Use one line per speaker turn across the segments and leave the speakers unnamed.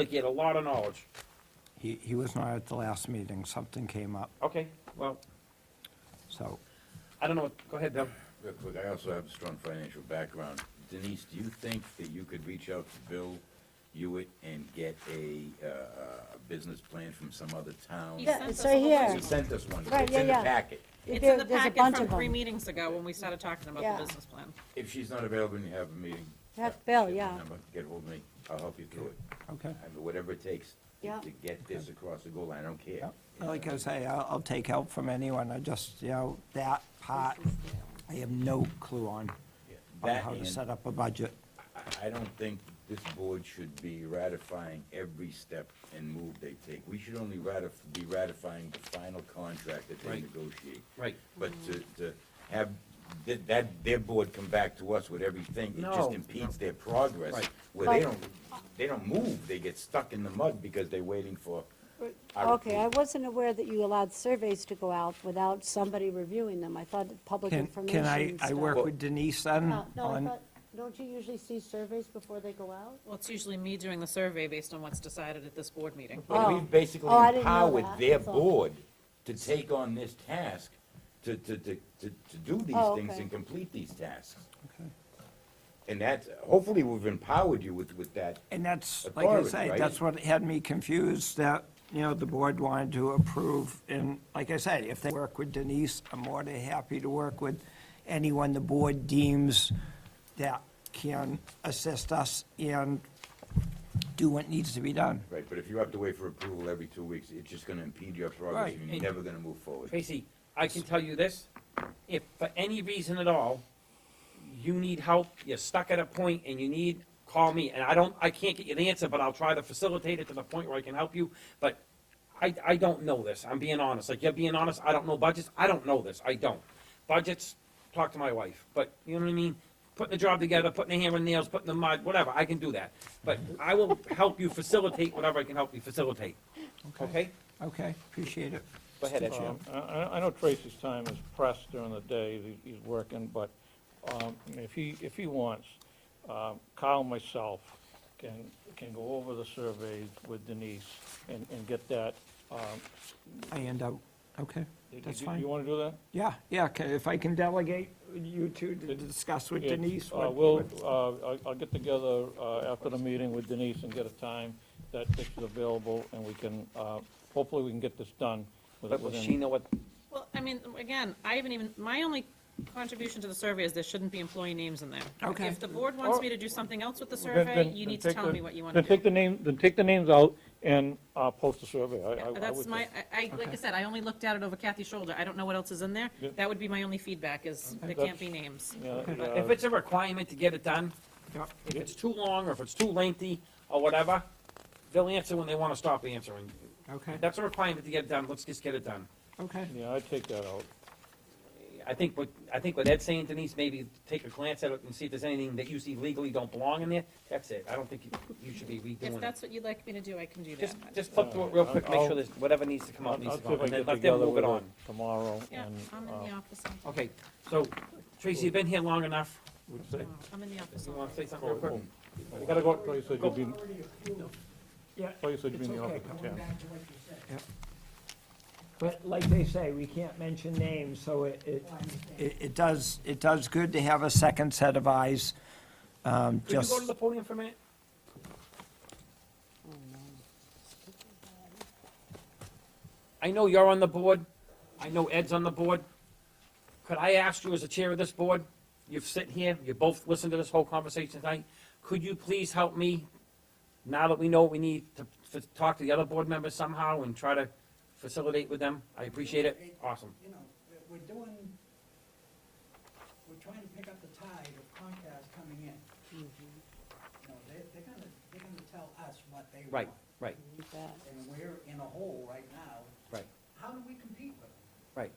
Like, he had a lot of knowledge.
He, he was not at the last meeting, something came up,
Okay, well,
so.
I don't know, go ahead, Deb.
Real quick, I also have a strong financial background. Denise, do you think that you could reach out to Bill Hewitt and get a, uh, a business plan from some other town?
He
Yeah,
sent
it's
us
right
a whole bunch
here.
He
of
sent us one,
Right,
it's in the
yeah, yeah.
packet.
It's
There-
in the
there's a
packet
bunch
from
of
three
them.
meetings ago when we started talking about
Yeah.
the business plan.
If she's not available and you have a meeting.
Have
uh,
Bill,
get my
yeah.
number, Get hold of me, I'll help you through it.
Okay.
I mean, whatever it takes
Yeah.
to get this across the goal line, I don't care.
Like I say, I'll, I'll take help from anyone, I just, you know, that part, I have no clue on,
Yeah.
on
That
how to
and-
set up a budget.
I- I don't think this board should be ratifying every step and move they take. We should only ratif, be ratifying the final contract that they
Right.
negotiate.
Right.
But to, to have, th- that, their board come back to us with everything, it
No.
just impedes their progress.
Right.
Where they
Right.
don't, they don't move, they get stuck in the mud because they're waiting for. our
Okay, I
approval.
wasn't aware that you allowed surveys to go out without somebody reviewing them. I thought that public
Can,
information
can I,
and
I
stuff.
work with Denise then?
Uh, No, I
on-
thought, don't you usually see surveys before they go out?
Well, it's usually me doing the survey based on what's decided at this board meeting.
But
Oh.
we've basically
Oh, I didn't know
empowered
that,
their
that's all.
board to take on this task, to, to, to, to, to do these
Oh,
things
okay.
and complete these tasks.
Okay.
And that's, hopefully we've empowered you with, with that.
And that's, like I
Authority,
say,
right?
that's what had me confused, that, you know, the board wanted to approve, and like I say, if they work with Denise, I'm more than happy to work with anyone the board deems that can assist us and do what needs to be done.
Right, but if you have to wait for approval every two weeks, it's just gonna impede your progress,
Right,
and you're
and-
never gonna move forward.
Tracy, I can tell you this, if for any reason at all, you need help, you're stuck at a point and you need, call me, and I don't, I can't get you the answer, but I'll try to facilitate it to the point where I can help you, but I, I don't know this, I'm being honest, like, you're being honest, I don't know budgets, I don't know this, I don't. Budgets, talk to my wife, but, you know what I mean? Putting the job together, putting the hammer and nails, putting the mud, whatever, I can do that, but I will help you facilitate whatever I can help you facilitate, okay?
Okay, appreciate it.
Go ahead, Ed.
Um, I- I, I know Tracy's time is pressed during the day, he- he's working, but um, if he, if he wants, um, Kyle, and myself, can, can go over the surveys with Denise and, and get that. um,
I end out, okay,
you-
that's
you-
fine.
You want to do that?
Yeah, yeah, okay, if I can delegate you two to discuss with
Yeah,
Denise.
uh,
what-
We'll,
what-
uh, I'll, I'll get together uh, after the meeting with Denise and get a time that this is available, and we can, uh, hopefully we can get this done with-
But will she
within.
know what,
Well, I mean, again, I haven't even, my only contribution to the survey is there shouldn't be employee names in there.
Okay.
If the board wants me to do something else with the
Then-
survey,
then-
you
then
need to
take
tell
the-
me what you want to do.
Then take the name, then take the names out and uh, post the survey. I- I- I
Yeah,
would
That's my,
think.
I, I- like I said, I only looked at it over Kathy's shoulder. I don't know what else is in there.
Yeah.
That would be my only feedback is there
That's-
can't be names.
Yeah, yeah.
if it's a requirement to get it done, if it's too long, or if it's too lengthy, or whatever, they'll answer when they wanna stop answering.
Okay,
If that's a requirement to get it done, let's just get it done.
okay,
Yeah, I'd take that out.
I think what, I think what Ed's saying, Denise, maybe take a glance at it and see if there's anything that you see legally don't belong in there, that's it, I don't think you- you should be
If
redoing it.
that's what you'd like me to do, I can do that.
Just, just flip through it real quick, make sure there's, whatever needs to come
I'll
out, needs
I'll
to
see
come
if
out,
I
and
can
then
get
let them
together
move it
with her
on.
tomorrow
Yeah,
and. uh,
I'm in the office. on-
Okay, so, Tracy, you've been here long enough,
Would say,
I'm in the office.
you
on-
wanna say something real quick?
you gotta go, thought you said you'd be,
yeah.
thought you said you'd be in the
It's okay,
office at
come on
ten.
But like they say, we can't mention names, so it, it, it it does, it does good to have a second set of eyes, um,
Could you
just,
go to the podium for a minute? I know you're on the board, I know Ed's on the board. Could I ask you as the chair of this board, you've sit here, you both listened to this whole conversation tonight, could you please help me, now that we know what we need, to, to talk to the other board members somehow and try to facilitate with them? I appreciate it, awesome.
you know, we're- we're doing, we're trying to pick up the tide of Comcast coming in.
Mm-hmm.
You know, they, they're gonna, they're gonna tell us what they want.
Right, right,
And we're in a hole right now.
right,
How do we compete with them?
right.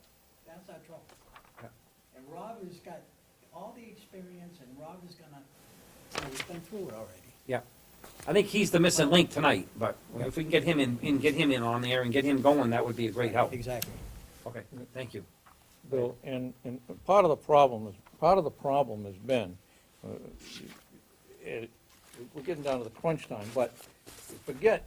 That's our trouble.
Yeah.
And Rob has got all the experience and Rob is gonna, you know, he's been through it already.
Yeah. I think he's the missing link tonight, but if we can get him in, and get him in on there and get him going, that would be a great help.
Exactly.
Okay, thank you.
Bill, and, and part of the problem is, part of the problem has been, uh, it, we're getting down to the crunch time, but forget